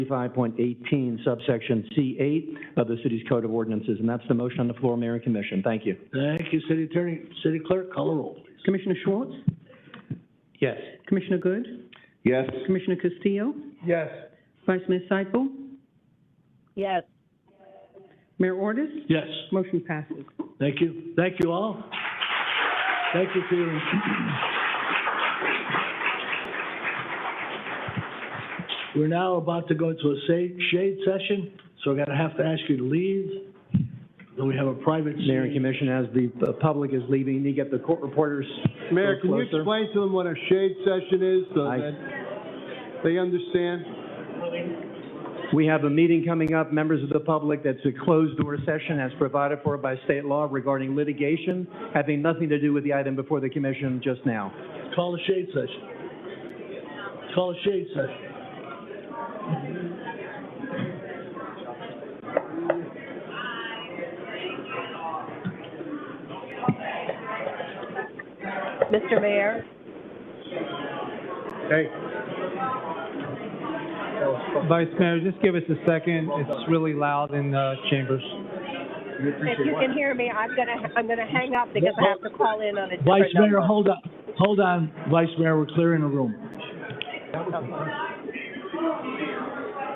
35.18 subsection C8 of the city's code of ordinances. And that's the motion on the floor, Mayor and Commission. Thank you. Thank you, City Attorney. City Clerk, call a roll, please. Commissioner Schwartz? Yes. Commissioner Good? Yes. Commissioner Castillo? Yes. Vice Mayor Seifel? Yes, Mayor Ordus? Yes, Motion passes. thank you. Thank you all. Thank you for your. We're now about to go into a sa- shade session, so I'm gonna have to ask you to leave. Then we have a private. Mayor and meeting. Commission, as the uh, public is leaving, you need to get the court reporters a Mayor, little can you closer. explain to them what a shade session is so I- that they understand? We have a meeting coming up, members of the public, that's a closed-door session as provided for by state law regarding litigation, having nothing to do with the item before the commission just now. Call a shade session. Call a shade session. Mr. Mayor, Hey. Vice Mayor, just give us a second. It's really loud in the chambers. if you can hear me, I'm gonna, I'm gonna hang up because I have to call in on a different Vice Mayor, number. hold up, hold on, Vice Mayor, we're clearing the room.